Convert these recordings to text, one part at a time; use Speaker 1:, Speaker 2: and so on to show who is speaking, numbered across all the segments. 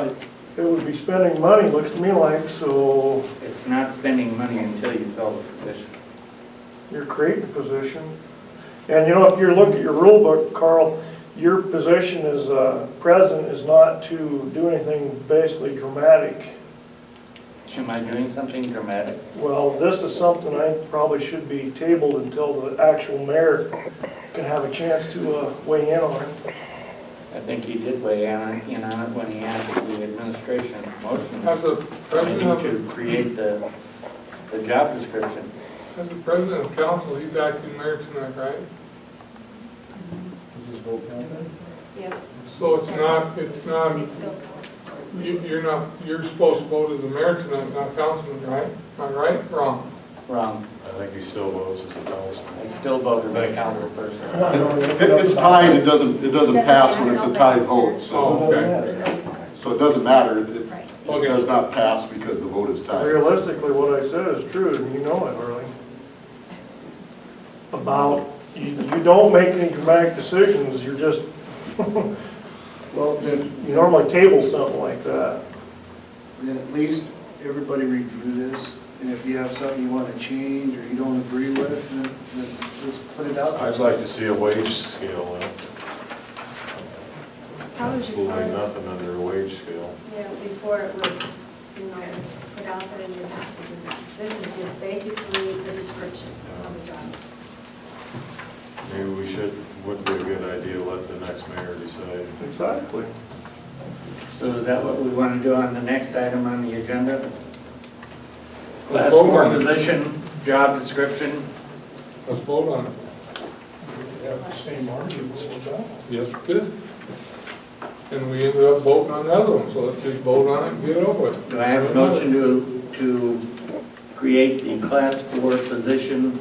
Speaker 1: like it would be spending money, looks to me like, so
Speaker 2: It's not spending money until you fill the position.
Speaker 1: you're creating a position. And you know, if you look at your rule book, Carl, your position as uh, president is not to do anything basically dramatic.
Speaker 2: Am I doing something dramatic?
Speaker 1: Well, this is something I probably should be tabled until the actual mayor can have a chance to uh, weigh in on it.
Speaker 2: I think he did weigh in on in on it when he asked the administration
Speaker 3: As
Speaker 2: motion
Speaker 3: the president of,
Speaker 2: to create the, the job description.
Speaker 3: the- as the president of council, he's acting mayor tonight, right?
Speaker 4: Yes.
Speaker 3: So it's not, it's not,
Speaker 4: It's still.
Speaker 3: you- you're not, you're supposed to vote as the mayor tonight, not councilman, right? Am I right, wrong?
Speaker 2: Wrong.
Speaker 5: I think he still votes as a councilman.
Speaker 2: I still vote as a council person.
Speaker 6: It- It's tied, it doesn't, it doesn't pass when it's a tied vote, so,
Speaker 3: Oh, okay.
Speaker 6: so it doesn't matter if
Speaker 4: Right.
Speaker 6: it does not pass because the vote is tied.
Speaker 1: Realistically, what I said is true, and you know it, Harley. About, you, you don't make any dramatic decisions, you're just, well, you you normally table something like that.
Speaker 7: then at least everybody review this, and if you have something you want to change or you don't agree with, then, then just put it out. there.
Speaker 5: I'd like to see a wage scale, in it.
Speaker 4: How was your
Speaker 5: absolutely
Speaker 4: part?
Speaker 5: nothing under a wage scale.
Speaker 4: Yeah, before it was, you know, put out there and you have to do that. This is just basically the description of the job.
Speaker 5: Maybe we should, would be a good idea, let the next mayor decide.
Speaker 1: Exactly.
Speaker 2: So is that what we want to do on the next item on the agenda? Class
Speaker 3: Let's vote
Speaker 2: four
Speaker 3: on it.
Speaker 2: position, job description.
Speaker 3: Let's vote on it. Yes, we did. And we ended up voting on the other one, so let's just vote on it and get it over with.
Speaker 2: Do I have a motion to, to create the class four position,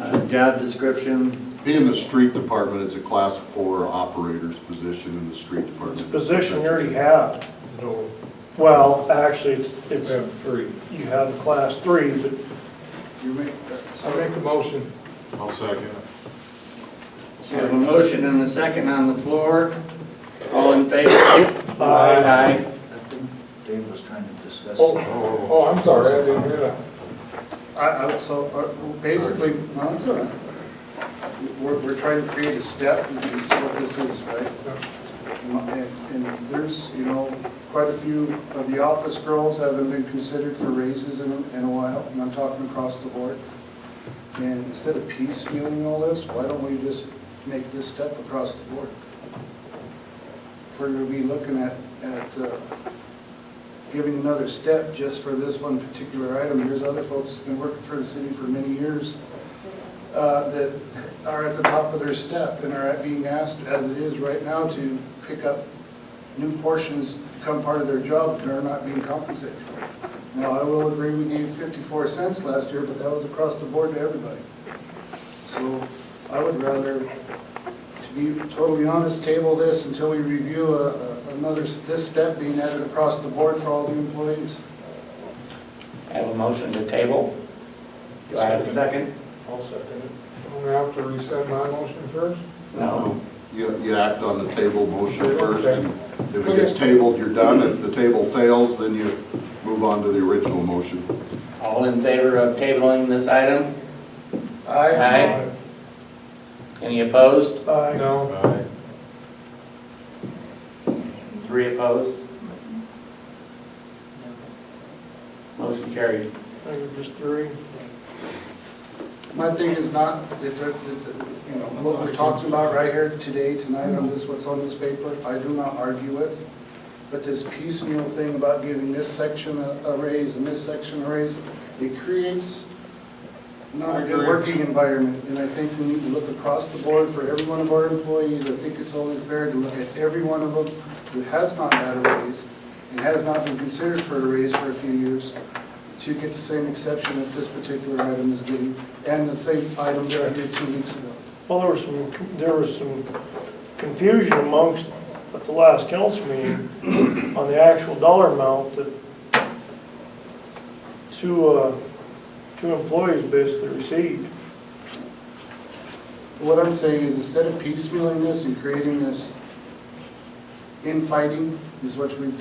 Speaker 2: uh, job description?
Speaker 6: Being the street department, it's a class four operator's position in the street
Speaker 1: It's a
Speaker 6: department.
Speaker 1: position you already
Speaker 6: That's
Speaker 1: have.
Speaker 3: No,
Speaker 1: Well, actually, it's,
Speaker 3: we
Speaker 1: it's,
Speaker 3: have three.
Speaker 1: you have a class three, but
Speaker 7: You uh, make,
Speaker 3: I make a motion.
Speaker 5: I'll second.
Speaker 2: So I have a motion and a second on the floor. All in favor? Aye.
Speaker 7: Dave was trying to discuss.
Speaker 3: Oh, oh, I'm sorry, I didn't hear that.
Speaker 7: I, I, so, uh, well, basically, no, it's all right. We're, we're trying to create a step, and that's what this is, right? And, and there's, you know, quite a few of the office girls haven't been considered for raises in, in a while, and I'm talking across the board. And instead of piecemealing all this, why don't we just make this step across the board? If We're gonna be looking at, at, uh, giving another step just for this one particular item. There's other folks who've been working for the city for many years uh, that are at the top of their step and are being asked, as it is right now, to pick up new portions, become part of their job, and are not being compensated for it. Now, I will agree, we gave 54 cents last year, but that was across the board to everybody. So I would rather, to be totally honest, table this until we review a- a- another, s- this step being added across the board for all the employees.
Speaker 2: I have a motion to table. Do I have a second?
Speaker 3: I'll second it. I'm gonna have to resend my motion first.
Speaker 2: No.
Speaker 6: You, you act on the table motion first, and if it gets tabled, you're done. If the table fails, then you move on to the original motion.
Speaker 2: All in favor of tabling this item? Aye. Any opposed?
Speaker 1: I,
Speaker 3: No,
Speaker 5: Aye.
Speaker 2: Three opposed? Motion carried.
Speaker 1: I think just three.
Speaker 7: My thing is not, that, that- that- that, you know, what we're talking about right here today, tonight, on this, what's on this paper, I do not argue it. But this piecemeal thing about giving this section a a raise and this section a raise, it creates not a good working environment. And I think we need to look across the board for every one of our employees. I think it's only fair to look at every one of them who has not had a raise and has not been considered for a raise for a few years to get the same exception that this particular item is getting, and the same item that I did two weeks ago.
Speaker 1: Well, there was some, there was some confusion amongst, at the last council meeting, on the actual dollar amount that two, uh, two employees basically received.
Speaker 7: What I'm saying is instead of piecemealing this and creating this infighting, is what we've